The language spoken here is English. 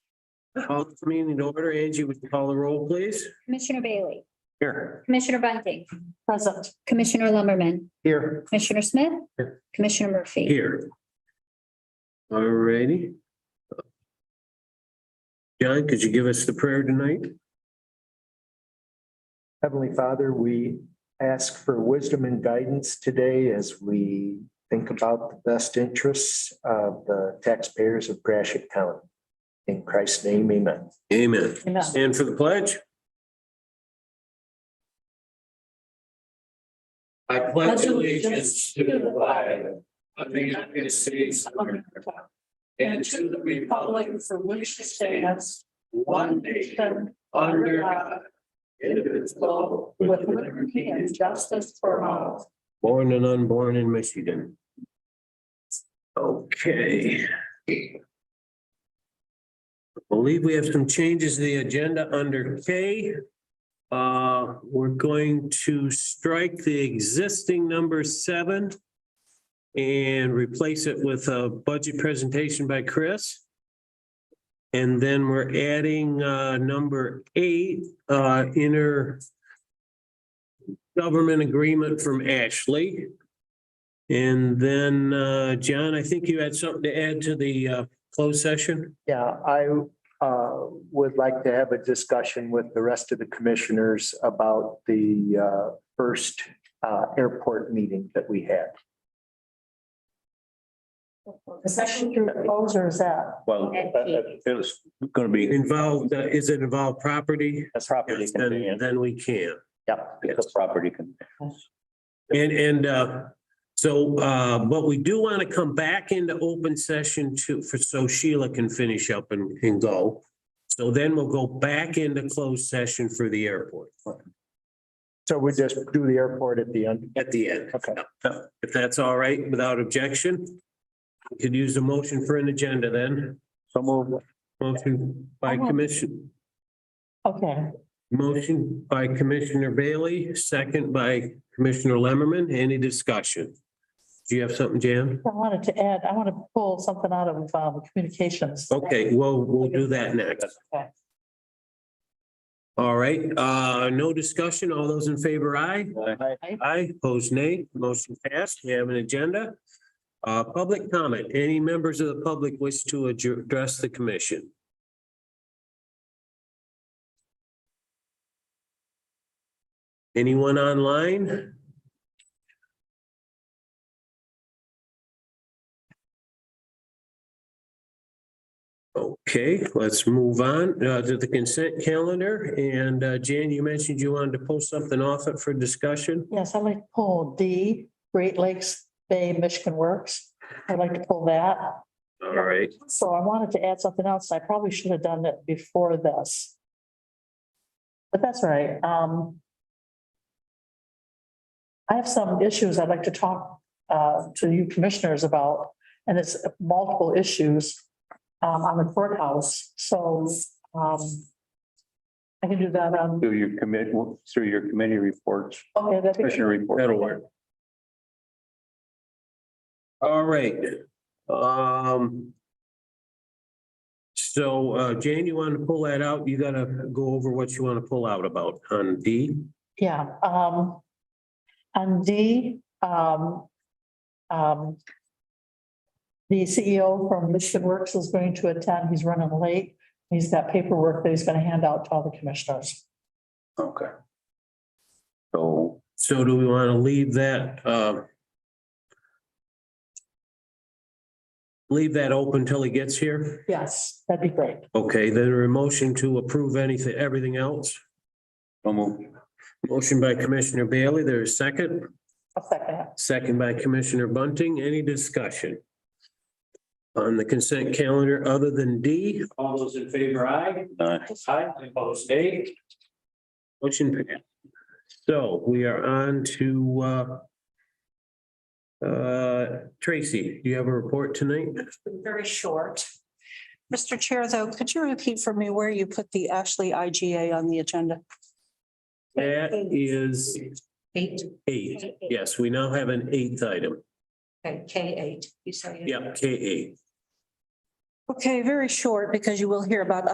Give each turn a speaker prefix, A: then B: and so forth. A: Call this meeting to order. Angie, would you call the roll, please?
B: Commissioner Bailey,
A: Here.
B: Commissioner Bunting. Present. Commissioner Lumberman,
A: Here.
B: Commissioner Smith.
A: Here.
B: Commissioner Murphy.
A: Here. Alrighty. John, could you give us the prayer tonight?
C: Heavenly Father, we ask for wisdom and guidance today as we think about the best interests of the taxpayers of Gratiot County. In Christ's name, amen.
A: Amen.
B: Amen.
A: Stand for the pledge. I
B: pledge allegiance to the flag
D: of the United States of America. And to the um, republic for which it stands, one nation, under uh, God, indivisible, with liberty and justice for all.
A: Born and unborn in Michigan. Okay. Believe we have some changes to the agenda under K. Uh, we're going to strike the existing number seven and replace it with a budget presentation by Chris. And then we're adding, uh, number eight, uh, inner government agreement from Ashley. And then, uh, John, I think you had something to add to the, uh, closed session?
C: Yeah, I uh, would like to have a discussion with the rest of the commissioners about the uh, first uh, airport meeting that we had.
E: The session through close or is that?
F: Well,
B: And
F: that- that-
B: cheese.
F: it was gonna be.
A: Involved, uh, is it involved property?
F: That's property.
A: Then, then we can.
C: Yeah.
F: It's property. con-
A: And, and, uh, so, uh, but we do want to come back into open session to, for, so Sheila can finish up and, and go. So then we'll go back into closed session for the airport
C: So we just do the airport at the end.
A: at the end.
C: Okay.
A: If that's all right, without objection, we could use a motion for an agenda then.
F: So move.
A: Motion by commission,
E: Okay.
A: motion by Commissioner Bailey, second by Commissioner Lemmerman. Any discussion? Do you have something, Jan?
E: I wanted to add, I want to pull something out of um, communications.
A: Okay, well, we'll do that next.
E: Okay.
A: All right, uh, no discussion. All those in favor, aye? Aye, opposed nay, motion passed. We have an agenda. Uh, public comment. Any members of the public wish to adju- address the commission? Anyone online? Okay, let's move on uh, to the consent calendar. And uh, Jan, you mentioned you wanted to pull something off it for discussion.
E: Yes, I'd like to pull D, Great Lakes Bay Michigan Works. I'd like to pull that.
A: All right,
E: So I wanted to add something else. I probably should have done it before this. But that's all right. Um. I have some issues I'd like to talk uh to you commissioners about, and it's multiple issues. Um, on the courthouse, so um. I can do that on,
F: Through your commit, through your committee reports,
E: okay, that'd be-
F: commissioner reports.
A: that'll work. All right, um. So, uh, Jane, you want to pull that out? You gotta go over what you want to pull out about on D.
E: Yeah, um, on D, um, um, the CEO from Michigan Works is going to attend. He's running late. He's got paperwork that he's gonna hand out to all the commissioners.
F: Okay. So
A: So do we want to leave that, um. Leave that open till he gets here?
E: Yes, that'd be great.
A: Okay, then a motion to approve anything, everything else.
F: so move.
A: Motion by Commissioner Bailey, there's second.
E: I'll second that.
A: Second by Commissioner Bunting. Any discussion? On the consent calendar other than D? All those in favor, aye.
F: Aye.
A: Aye, opposed, nay. Motion passed. So we are on to uh. Uh, Tracy, do you have a report tonight?
G: very short. Mr. Chair, though, could you repeat for me where you put the Ashley IGA on the agenda?
A: That is
G: Eight,
A: eight. Yes, we now have an eighth item.
G: okay, K eight, you say.
A: Yep, K eight.
G: Okay, very short, because you will hear about